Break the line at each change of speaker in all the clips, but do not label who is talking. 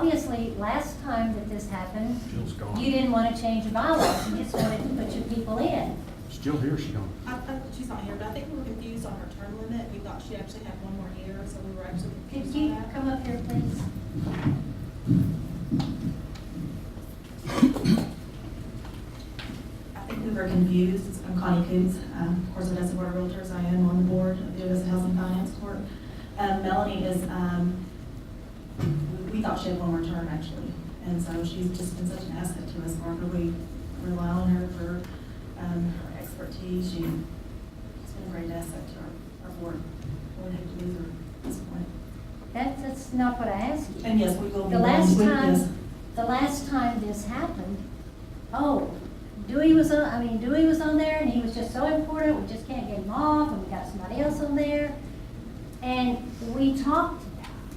Obviously, last time that this happened,
Jill's
you
gone.
didn't want to change your bylaws, you just wanted to put your people in.
Still here, she gone.
I, I, she's not here, but I think we were confused on her term limit. We thought she actually had one more year, so we were actually
Could
confused
you
on that.
come up here, please?
I think we were confused. I'm Connie Coombs. Um, Of course, Odessa Board of Realtors, I am on the board of the Odessa Housing Finance Court. Um, Melanie is, um, we- we thought she had one more term, actually. And so she's just been such an asset to us, Barbara. We rely on her for um, her expertise. She- She's been a great asset to our- our board. We would hate to lose her at this point.
That's, that's not what I asked you.
And yes, we will be.
The last
going with this.
time, the last time this happened, oh, Dewey was on, I mean, Dewey was on there and he was just so important, we just can't get him off, and we got somebody else on there. And we talked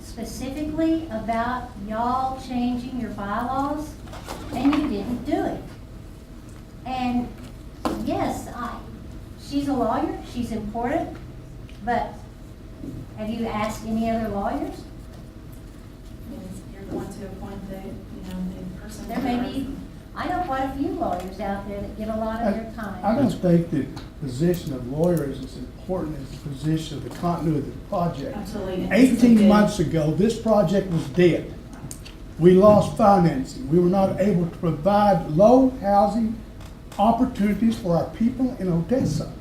specifically about y'all changing your bylaws and you didn't do it. And yes, I, she's a lawyer, she's important, but have you asked any other lawyers?
Yes, You're going to appoint the, you know, the person.
There may be, I know quite a few lawyers out there that give a lot of their
I
time.
don't think that the position of lawyer is as important as the position of the continuity of the project.
Absolutely.
Eighteen months ago, this project was dead. We lost financing. We were not able to provide low housing opportunities for our people in Odessa.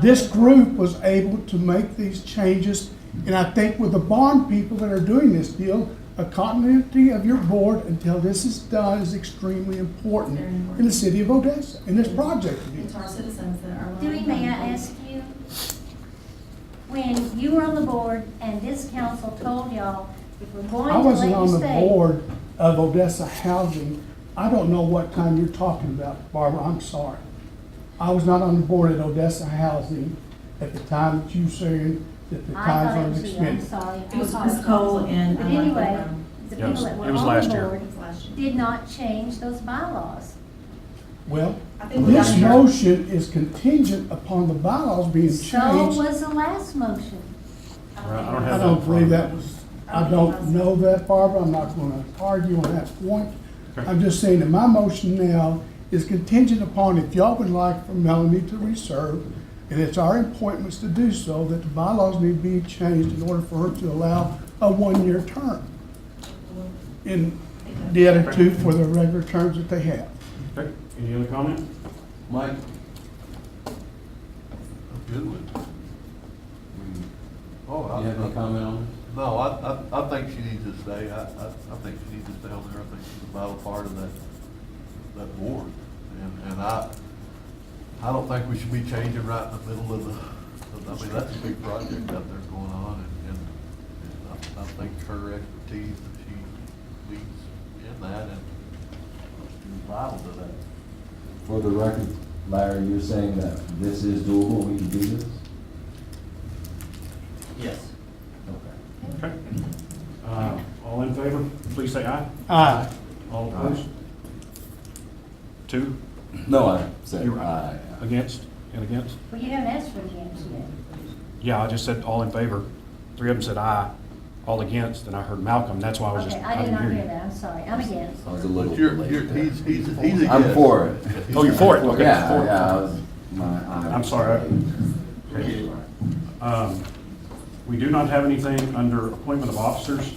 This group was able to make these changes, and I think with the bond people that are doing this deal, a continuity of your board until this is done is extremely important
Very important.
in the city of Odessa, in this project.
And to our citizens that are.
Dewey, may I ask you, when you were on the board and this council told y'all, if we're going
I
to let
wasn't
you
on the
stay.
board of Odessa Housing. I don't know what time you're talking about, Barbara, I'm sorry. I was not on the board at Odessa Housing at the time that you said that the
I
times
thought it
were
was you, I'm
expended.
sorry.
It was
I'm sorry.
Ms. Cole and.
But
um,
anyway, the
Yes,
people that were
it was
on
last
the
year.
board
Last year.
did not change those bylaws.
Well,
I think we got
This
here.
motion is contingent upon the bylaws being
So
changed.
was the last motion.
I don't
I
have
don't believe that was, I don't know that, Barbara, I'm not gonna argue on that point.
Okay.
I'm just saying that my motion now is contingent upon if y'all would like for Melanie to reserve, and it's our appointments to do so, that the bylaws need to be changed in order for her to allow a one-year term. And the other two for the regular terms that they have.
Okay, any other comment?
Mike? A good one.
Oh,
You have any
I,
comment on
no, I, I, I think she needs to stay. I, I, I think she needs to stay on there. I think she's a vital part of that, that board. And, and I, I don't think we should be changing right in the middle of the, I mean, that's a big project out there going on and, and and I, I think her expertise that she leads in that and is vital to that.
For the record, Larry, you're saying that this is doable, we can do this?
Yes.
Okay.
Okay. Uh, all in favor, please say aye.
Aye.
All opposed? Two
No, I said
You're
aye.
against and against?
Well, you haven't asked for the answer yet.
Yeah, I just said all in favor. Three of them said aye, all against, and I heard Malcolm, that's why I was just,
Okay, I
I
did
didn't
not
hear
hear
you.
that, I'm sorry, I'm against.
I was a
But
little
you're,
late
you're,
there.
he's, he's, he's a
I'm
yes.
for it.
Oh, you're for it, okay.
Yeah,
For it.
yeah, I was, my eye.
I'm
was
sorry.
late. That's all right.
Um, We do not have anything under appointment of officers,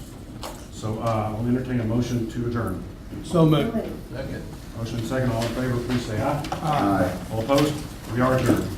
so uh, I'll entertain a motion to adjourn.
So moved.
Second.
Motion second, all in favor, please say aye.
Aye.
All opposed? We are adjourned.